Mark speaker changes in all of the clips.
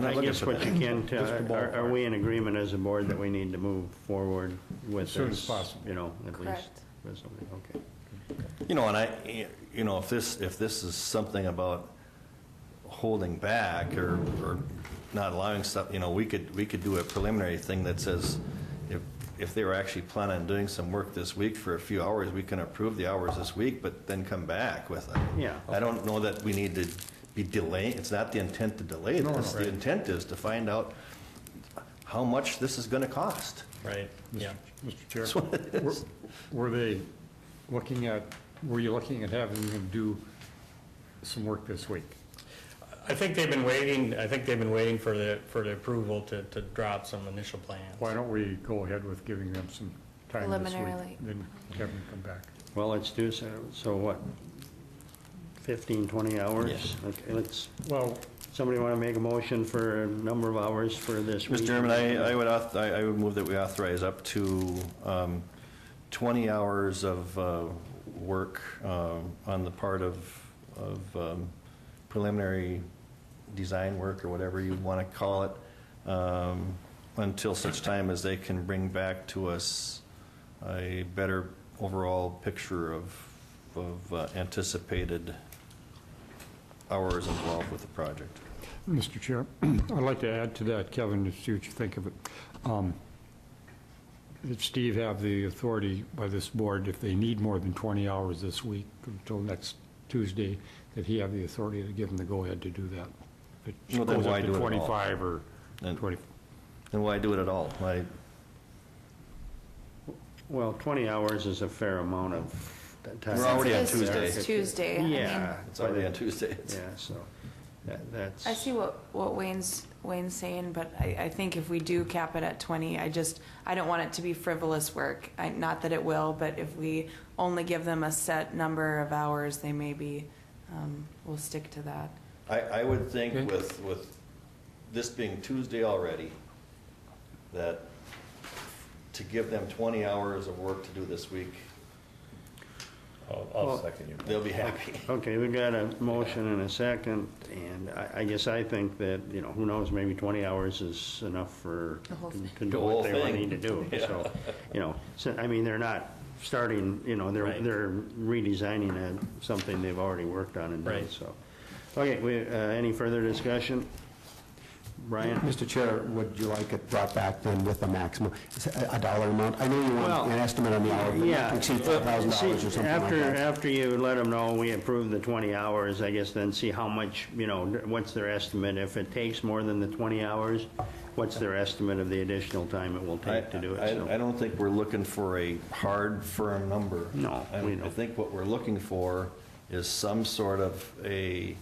Speaker 1: not
Speaker 2: I
Speaker 1: looking
Speaker 2: guess
Speaker 1: for
Speaker 2: what
Speaker 1: that.
Speaker 2: you can, tell- uh,
Speaker 1: Just a
Speaker 2: are, are
Speaker 1: ballpark.
Speaker 2: we in agreement as a board that we need to move forward with this?
Speaker 3: As soon as possible.
Speaker 2: You know, at least,
Speaker 4: Correct.
Speaker 2: with something, okay.
Speaker 1: You know, and I, you know, if this, if this is something about holding back or, or not allowing stuff, you know, we could, we could do a preliminary thing that says if, if they were actually planning on doing some work this week for a few hours, we can approve the hours this week, but then come back with it.
Speaker 2: Yeah.
Speaker 1: I don't know that we need to be delaying, it's not the intent to delay
Speaker 3: No, no,
Speaker 1: this. The
Speaker 3: right.
Speaker 1: intent is to find out how much this is going to cost.
Speaker 5: Right, yeah.
Speaker 3: Mr. Chair, were- were they looking at, were you looking at having them do some work this week?
Speaker 5: I think they've been waiting, I think they've been waiting for the, for the approval to, to drop some initial plans.
Speaker 3: Why don't we go ahead with giving them some time this week?
Speaker 4: Preliminarily.
Speaker 3: Then have them come back.
Speaker 2: Well, let's do so, so what, 15, 20 hours?
Speaker 1: Yeah.
Speaker 2: Okay, let's,
Speaker 3: Well,
Speaker 2: somebody want to make a motion for a number of hours for this week?
Speaker 1: Mr. Chairman, I, I would, auth- I I would move that we authorize up to um, 20 hours of uh, work um, on the part of, of um, preliminary design work, or whatever you want to call it, um, until such time as they can bring back to us a better overall picture of, of uh, anticipated hours involved with the project.
Speaker 3: Mr. Chair, I'd like to add to that, Kevin, to see what you think of it. Um, Did Steve have the authority by this board, if they need more than 20 hours this week until next Tuesday, that he have the authority to give them the go-ahead to do that? If it
Speaker 1: Well, then
Speaker 3: goes up
Speaker 1: why
Speaker 3: to
Speaker 1: do it at all?
Speaker 3: 25 or
Speaker 1: Then-
Speaker 3: 20,
Speaker 1: Then why do it at all? Why,
Speaker 2: Well, 20 hours is a fair amount of time.
Speaker 1: We're already on
Speaker 4: It's-
Speaker 1: Tuesday.
Speaker 4: It's Tuesday. I mean,
Speaker 2: Yeah.
Speaker 1: It's already on Tuesday.
Speaker 2: Yeah, so, that- that's.
Speaker 4: I see what, what Wayne's, Wayne's saying, but I, I think if we do cap it at twenty, I just, I don't want it to be frivolous work. I, not that it will, but if we only give them a set number of hours, they may be, um, we'll stick to that.
Speaker 1: I, I would think
Speaker 3: Okay.
Speaker 1: with, with this being Tuesday already, that to give them 20 hours of work to do this week,
Speaker 5: I'll,
Speaker 2: Well-
Speaker 5: second you.
Speaker 1: they'll be happy.
Speaker 2: Okay, we've got a motion and a second, and I, I guess I think that, you know, who knows, maybe 20 hours is enough for,
Speaker 4: The whole
Speaker 2: to-
Speaker 4: thing.
Speaker 2: to
Speaker 1: The
Speaker 2: do
Speaker 1: whole
Speaker 2: what they
Speaker 1: thing.
Speaker 2: need to do. So, you know, so, I mean, they're not starting, you know, they're,
Speaker 5: Right.
Speaker 2: they're redesigning a- something they've already worked on and done,
Speaker 5: Right.
Speaker 2: so. Okay, we, uh, any further discussion? Brian?
Speaker 6: Mr. Chair, would you like it brought back then with a maximum, a dollar amount? I know you
Speaker 2: Well,
Speaker 6: want an estimate on the hour, but not
Speaker 2: Yeah.
Speaker 6: to exceed
Speaker 2: well,
Speaker 6: $5,000
Speaker 2: see,
Speaker 6: or something like
Speaker 2: After,
Speaker 6: that.
Speaker 2: after you let them know we approve the 20 hours, I guess then see how much, you know, what's their estimate? If it takes more than the 20 hours, what's their estimate of the additional time it will
Speaker 1: I,
Speaker 2: take to do it? so.
Speaker 1: I- I don't think we're looking for a hard, firm number.
Speaker 2: No,
Speaker 1: I-
Speaker 2: we don't.
Speaker 1: I think what we're looking for is some sort of a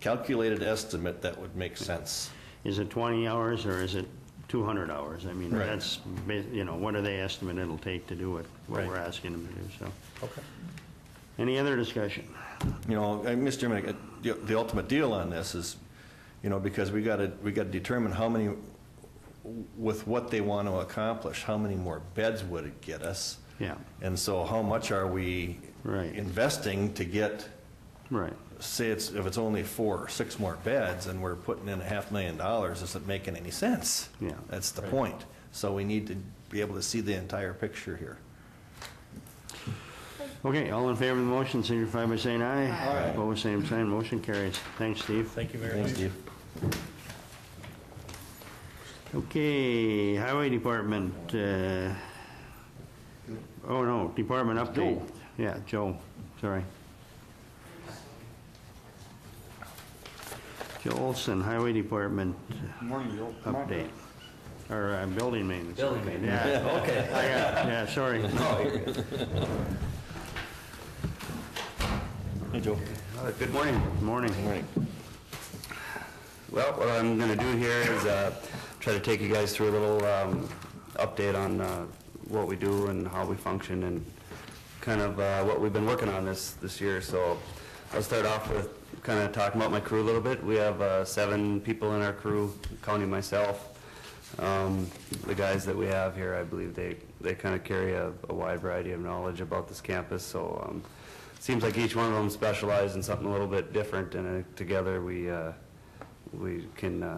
Speaker 1: calculated estimate that would make sense.
Speaker 2: Is it 20 hours or is it 200 hours? I mean,
Speaker 1: Right.
Speaker 2: that's, ba- you know, what are they estimate it'll take to do it, what
Speaker 1: Right.
Speaker 2: we're asking them to do, so. Okay. Any other discussion?
Speaker 1: you know, and Mr. Chairman, uh, the- the ultimate deal on this is, you know, because we got to, we got to determine how many, with what they want to accomplish, how many more beds would it get us?
Speaker 2: Yeah.
Speaker 1: And so how much are we
Speaker 2: Right.
Speaker 1: investing to get,
Speaker 2: Right.
Speaker 1: say it's, if it's only four or six more beds and we're putting in a half million dollars, isn't making any sense.
Speaker 2: Yeah.
Speaker 1: That's the point. So we need to be able to see the entire picture here.
Speaker 2: Okay, all in favor of the motion, signify by saying aye.
Speaker 1: Aye.
Speaker 2: Opposed, same sign, motion carries. Thanks, Steve.
Speaker 5: Thank you very much.
Speaker 1: Thanks, Steve.
Speaker 2: Okay, Highway Department, uh, oh no, Department update. Yeah, Joe, sorry. Joe Olson, Highway Department
Speaker 3: Morning, Joe.
Speaker 2: update, or uh, building maintenance. Building maintenance. Yeah, okay. Yeah, sorry.
Speaker 1: Hey, Joe.
Speaker 7: Uh, Good morning.
Speaker 2: Morning.
Speaker 7: Morning. Well, what I'm going to do here is uh, try to take you guys through a little um, update on uh, what we do and how we function and kind of uh, what we've been working on this, this year. So I'll start off with kind of talking about my crew a little bit. We have uh, seven people in our crew, counting myself. Um, The guys that we have here, I believe they, they kind of carry a a wide variety of knowledge about this campus, so um, seems like each one of them specializes in something a little bit different, and I think together we, uh, we can uh,